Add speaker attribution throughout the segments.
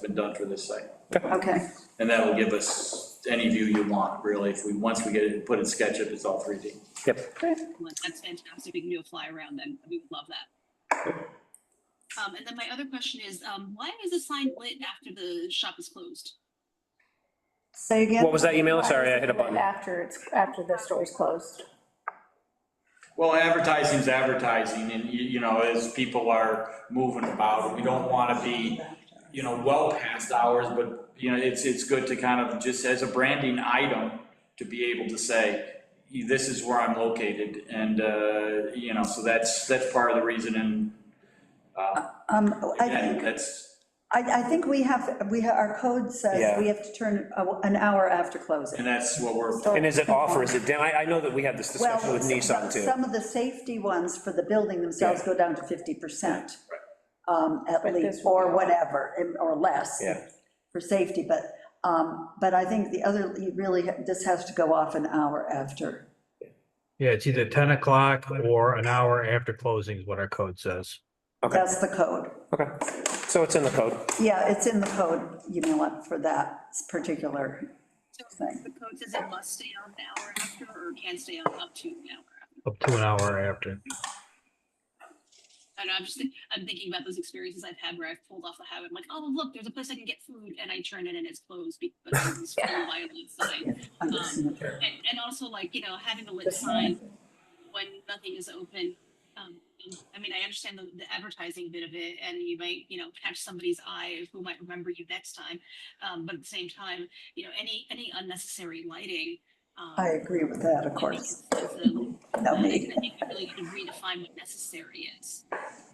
Speaker 1: been done for this site.
Speaker 2: Okay,
Speaker 1: And that will give us any view you want, really, if we, once we get it, put in SketchUp, it's all 3D.
Speaker 3: Yep.
Speaker 4: Excellent. That's fantastic. We can do a fly around then. We would love that. Um, and then my other question is, um, why is the sign lit after the shop is closed?
Speaker 2: say again.
Speaker 3: What was that email? Sorry, I hit a button.
Speaker 5: After it's, after the store's closed.
Speaker 1: Well, advertising's advertising, and you, you know, as people are moving about, we don't wanna be, you know, well past hours, but, you know, it's, it's good to kind of, just as a branding item, to be able to say, this is where I'm located, and, uh, you know, so that's, that's part of the reason, and, uh,
Speaker 2: Um, I
Speaker 1: again,
Speaker 2: think,
Speaker 1: that's,
Speaker 2: I, I think we have, we, ha- our code says
Speaker 3: Yeah.
Speaker 2: we have to turn a- an hour after closing.
Speaker 1: and that's what we're,
Speaker 3: And is it off or is it down? I, I know that we had this discussion
Speaker 2: Well,
Speaker 3: with Nissan too.
Speaker 2: Some of the safety ones for the building themselves go down to 50%. um, At
Speaker 5: But
Speaker 2: least,
Speaker 5: this would
Speaker 2: or
Speaker 5: be-
Speaker 2: whatever, and- or less.
Speaker 3: Yeah.
Speaker 2: For safety, but, um, but I think the other, you really, this has to go off an hour after.
Speaker 6: Yeah, it's either ten o'clock or an hour after closing is what our code says.
Speaker 3: Okay.
Speaker 2: That's the code.
Speaker 3: Okay, so it's in the code.
Speaker 2: Yeah, it's in the code, you know, what, for that particular
Speaker 4: So
Speaker 2: Sign.
Speaker 4: the code says it must stay on an hour after or can stay on up to an hour after.
Speaker 6: Up to an hour after.
Speaker 4: I don't know, I'm just, think- I'm thinking about those experiences I've had where I've pulled off the highway. I'm like, oh, look, there's a place I can get food and I turn in and it's closed because it's full of violence sign.
Speaker 2: understanding.
Speaker 4: And, and also like, you know, having a lit sign when nothing is open. Um, I mean, I understand the, the advertising bit of it and you might, you know, catch somebody's eye who might remember you next time. Um, but at the same time, you know, any, any unnecessary lighting. um,
Speaker 2: I agree with that, of
Speaker 4: I think
Speaker 2: course.
Speaker 4: is- is a-
Speaker 2: No,
Speaker 4: I
Speaker 2: me.
Speaker 4: think I think we really need to redefine what necessary is.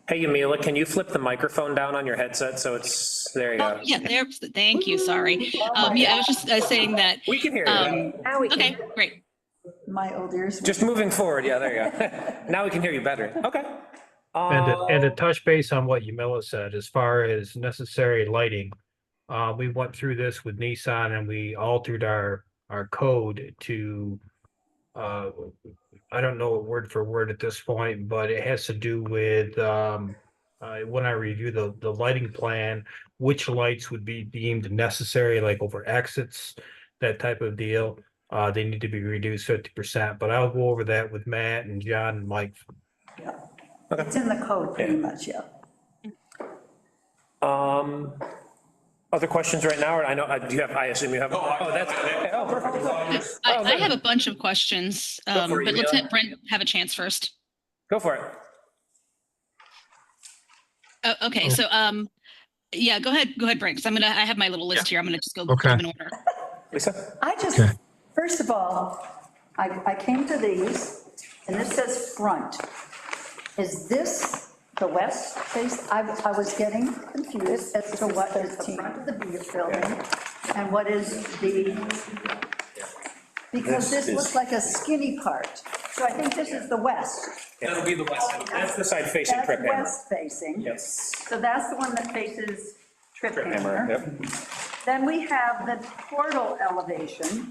Speaker 3: Hey, Yamila, can you flip the microphone down on your headset so it's, there you
Speaker 4: Oh,
Speaker 3: go.
Speaker 4: yeah, there, thank you, sorry. Um, yeah, I was just uh, saying that,
Speaker 3: We can hear you.
Speaker 4: um,
Speaker 5: Now we
Speaker 4: okay,
Speaker 5: can,
Speaker 4: great.
Speaker 2: My old ears.
Speaker 3: Just moving forward, yeah, there you go. Now we can hear you better. Okay.
Speaker 6: And to, and to
Speaker 3: Uh,
Speaker 6: touch base on what Yumila said, as far as necessary lighting, uh, we went through this with Nissan and we altered our, our code to, uh, I don't know it word for word at this point, but it has to do with, um, uh, when I review the, the lighting plan, which lights would be deemed necessary, like over exits, that type of deal. Uh, they need to be reduced fifty percent, but I'll go over that with Matt and John and Mike
Speaker 2: It's in the code pretty much, yeah.
Speaker 3: Um, other questions right now, or I know, uh, do you have, I assume you have, oh, that's, okay, oh, perfect.
Speaker 4: I,
Speaker 3: Oh,
Speaker 4: I
Speaker 3: good.
Speaker 4: have a bunch of questions,
Speaker 3: for
Speaker 4: um,
Speaker 3: it,
Speaker 4: but let's
Speaker 3: Yumila.
Speaker 4: let Brent have a chance first.
Speaker 3: Go for it.
Speaker 4: Oh, okay, so, um, yeah, go ahead, go ahead, Brent, 'cause I'm gonna, I have my little list here. I'm gonna just go through
Speaker 6: Okay.
Speaker 4: them in order.
Speaker 3: Lisa?
Speaker 2: I just,
Speaker 6: Okay.
Speaker 2: first of all, I, I came to these, and this says front. Is this the west face? I, I was getting confused as to what is the front of the bu- building and what is the, because this looks like a skinny part. So I think this is the west.
Speaker 1: that'll be the west end.
Speaker 3: That's the side facing
Speaker 2: That's
Speaker 3: trip hammer.
Speaker 2: west facing.
Speaker 3: Yes.
Speaker 2: So that's the one that faces Trip
Speaker 3: Trip hammer,
Speaker 2: Hammer.
Speaker 3: yep.
Speaker 2: Then we have the portal elevation.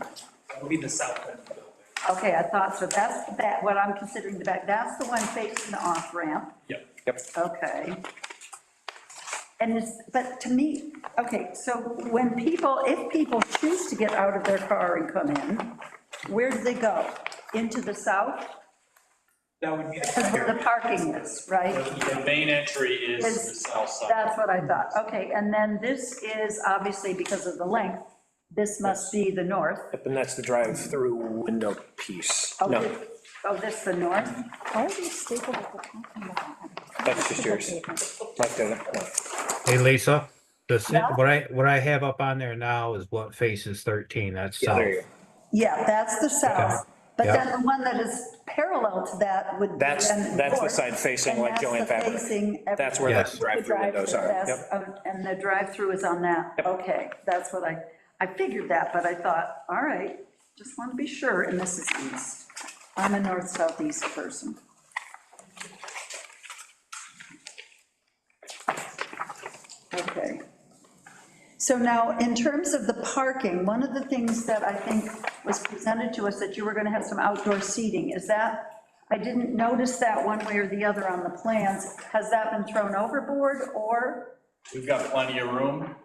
Speaker 7: That would be the south end of the building.
Speaker 2: Okay, I thought so. That's that, what I'm considering the back, that's the one facing the off-ramp.
Speaker 7: Yep.
Speaker 3: Yep.
Speaker 2: Okay. And it's, but to me, okay, so when people, if people choose to get out of their car and come in, where do they go? Into the south?
Speaker 7: That would be the
Speaker 2: Because where
Speaker 7: second.
Speaker 2: the parking is, right?
Speaker 1: The main entry is
Speaker 2: Is-
Speaker 1: the south side.
Speaker 2: That's what I thought. Okay, and then this is obviously because of the length, this must be the north.
Speaker 3: Yep, And that's the drive-through window piece.
Speaker 2: Oh,
Speaker 3: No,
Speaker 2: this- Oh, this the north?
Speaker 5: why are these stapled at the top and the bottom?
Speaker 3: that's just yours. Right there.
Speaker 6: Hey Lisa, this,
Speaker 2: Yeah?
Speaker 6: what I, what I have up on there now is what faces thirteen, that's
Speaker 3: Yeah,
Speaker 6: south.
Speaker 3: there you go.
Speaker 2: Yeah, that's the south, but
Speaker 6: Yeah.
Speaker 2: then the one that is parallel to that would. be
Speaker 3: That's,
Speaker 2: then the
Speaker 3: that's the
Speaker 2: north,
Speaker 3: side facing
Speaker 2: and
Speaker 3: like
Speaker 2: that's the
Speaker 3: Joanne Fabric.
Speaker 2: facing every-
Speaker 3: That's where
Speaker 6: Yes.
Speaker 3: the drive-through windows
Speaker 2: drive-through,
Speaker 3: are.
Speaker 2: that's-
Speaker 3: Yep.
Speaker 2: um, And the drive-through is on that, okay, that's what I, I figured that, but I thought, all right, just want to be sure, and this is east. I'm a north southeast person. Okay. So now, in terms of the parking, one of the things that I think was presented to us, that you were going to have some outdoor seating, is that, I didn't notice that one way or the other on the plans, has that been thrown overboard, or?
Speaker 1: We've got plenty of room.